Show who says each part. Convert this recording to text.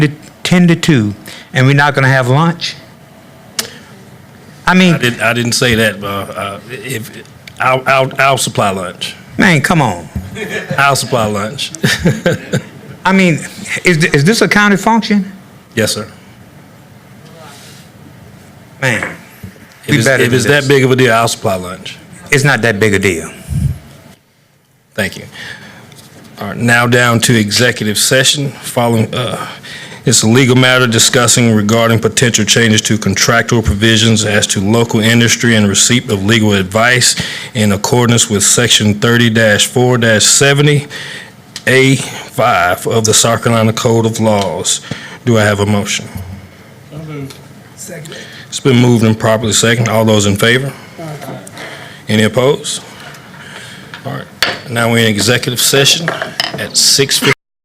Speaker 1: 10 to 2, and we're not going to have lunch? I mean,
Speaker 2: I didn't, I didn't say that, uh, uh, if, I'll, I'll, I'll supply lunch.
Speaker 1: man, come on.
Speaker 2: I'll supply lunch.
Speaker 1: I mean, is, is this a county function?
Speaker 2: Yes, sir.
Speaker 1: Man,
Speaker 2: If it's,
Speaker 1: better
Speaker 2: if
Speaker 1: than
Speaker 2: it's that
Speaker 1: this.
Speaker 2: big of a deal, I'll supply lunch.
Speaker 1: it's not that big a deal.
Speaker 2: Thank you. All right, now down to executive session following, uh, it's a legal matter discussing regarding potential changes to contractual provisions as to local industry and receipt of legal advice in accordance with section thirty four seventy A five of the South Carolina Code of Laws. Do I have a motion?
Speaker 3: Second.
Speaker 2: It's been moved and properly second. All those in favor? Any opposed? All right, now we're in executive session at six fifty.